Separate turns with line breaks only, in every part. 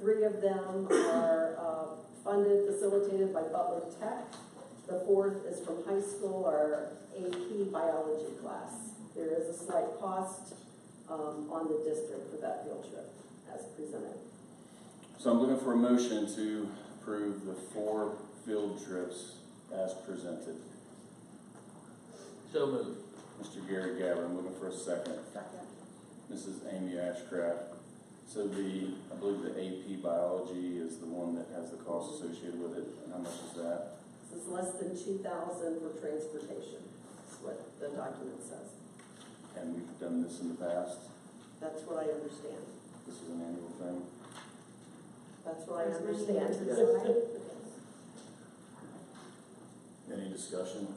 Three of them are uh, funded, facilitated by Butler Tech. The fourth is from high school, our AP biology class. There is a slight cost um, on the district for that field trip as presented.
So I'm looking for a motion to approve the four field trips as presented.
So moved.
Mr. Gary Gabbard, I'm looking for a second.
Second.
Mrs. Amy Ashcraft. So the, I believe the AP biology is the one that has the cost associated with it, and how much is that?
This is less than two thousand for transportation, is what the document says.
And we've done this in the past,
That's what I understand.
this is an annual thing.
That's what I
There's many
understand.
years ago, right?
Any discussion?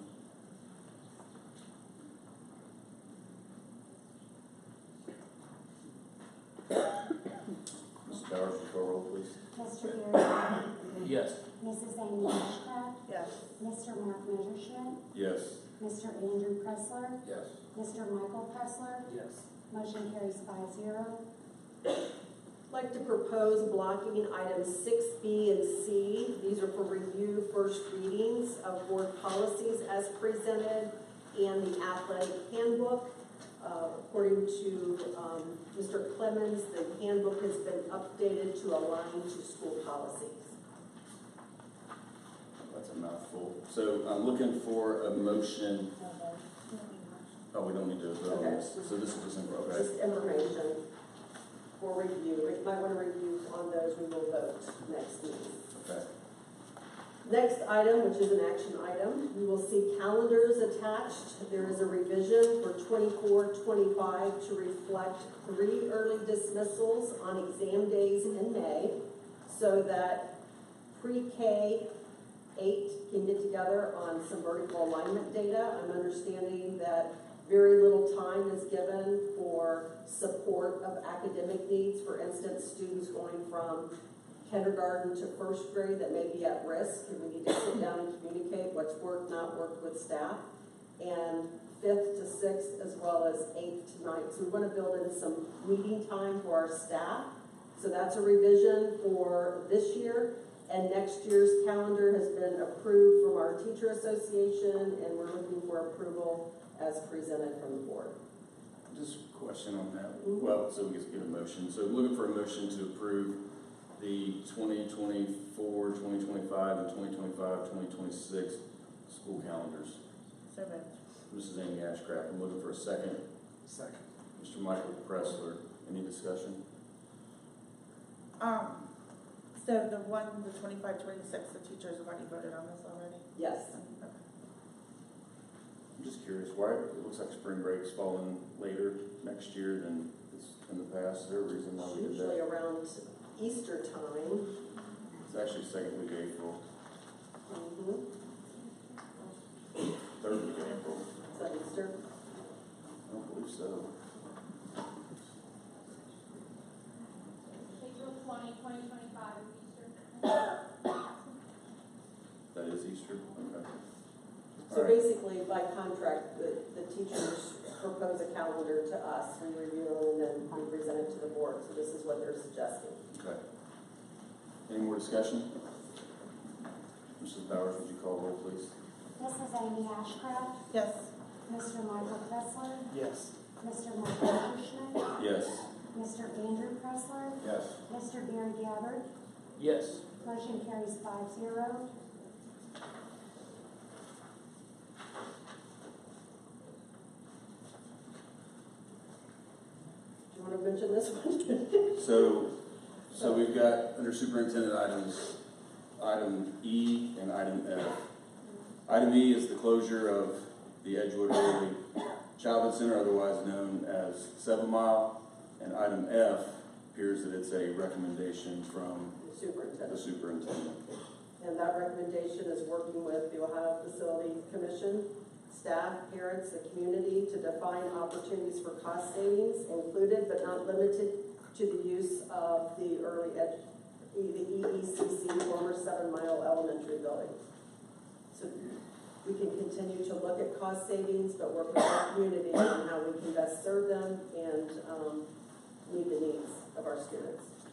Mrs. Bowers, would you call roll, please?
Mr. Gary Gabbard,
Yes.
Mrs. Amy Ashcraft,
Yes.
Mr. Mark Messerschmidt,
Yes.
Mr. Andrew Pressler,
Yes.
Mr. Michael Pressler.
Yes.
Motion carries five zero.
I'd like to propose blocking items six B and C. These are for review first readings of board policies as presented and the athletic handbook. Uh, According to um, Mr. Clemens, the handbook has been updated to align to school policies.
That's a mouthful. So I'm looking for a motion, oh, we don't need to vote on this, so this is just, in- okay.
Just information for review. Rick might want to review on those. We will vote next meeting.
Okay.
Next item, which is an action item, you will see calendars attached. There is a revision for 24-25 to reflect three early dismissals on exam days in May so that pre-K eight can get together on some vertical alignment data. I'm understanding that very little time is given for support of academic needs. For instance, students going from kindergarten to first grade that may be at risk, and we need to sit down and communicate what's worked, not worked with staff. And fifth to sixth, as well as eighth to ninth, so we wanna build in some meeting time for our staff. So that's a revision for this year, and next year's calendar has been approved from our teacher association, and we're looking for approval as presented from the board.
Just a question on that, well, so we just get a motion, so looking for a motion to approve the 2024, 2025, and 2025, 2026 school calendars.
So moved.
Mrs. Amy Ashcraft, I'm looking for a second.
Second.
Mr. Michael Pressler, any discussion?
Um, so the one, the twenty-five, twenty-six, the teachers have already voted on this already?
Yes,
Okay.
I'm just curious, why, it looks like spring break's falling later next year than it's in the past, is there a reason why we did
usually
that?
around Easter time.
It's actually second week of April,
Mhm.
third week of April,
Is that Easter?
I don't believe so.
April twenty, twenty twenty-five, Easter.
That is Easter, okay. All
So
right.
basically, by contract, the, the teachers propose a calendar to us, we review it, and then we present it to the board, so this is what they're suggesting.
Okay. Any more discussion? Mrs. Bowers, would you call roll, please?
Mrs. Amy Ashcraft,
Yes,
Mr. Michael Pressler,
Yes.
Mr. Mark Messerschmidt,
Yes.
Mr. Andrew Pressler,
Yes.
Mr. Gary Gabbard.
Yes.
Motion carries five zero.
Do you wanna mention this one?
So, so we've got, under superintendent items, item E and item F. Item E is the closure of the Edgewood Early Childhood Center, otherwise known as Seven Mile. And item F appears that it's a recommendation from the
Superintendent,
superintendent.
and that recommendation is working with the Ohio Facilities Commission, staff, parents, the community to define opportunities for cost savings included but not limited to the use of the early ed, E, the EECC former Seven Mile Elementary Building. So we can continue to look at cost savings, but work with our community on how we can best serve them and, um, meet the needs of our students.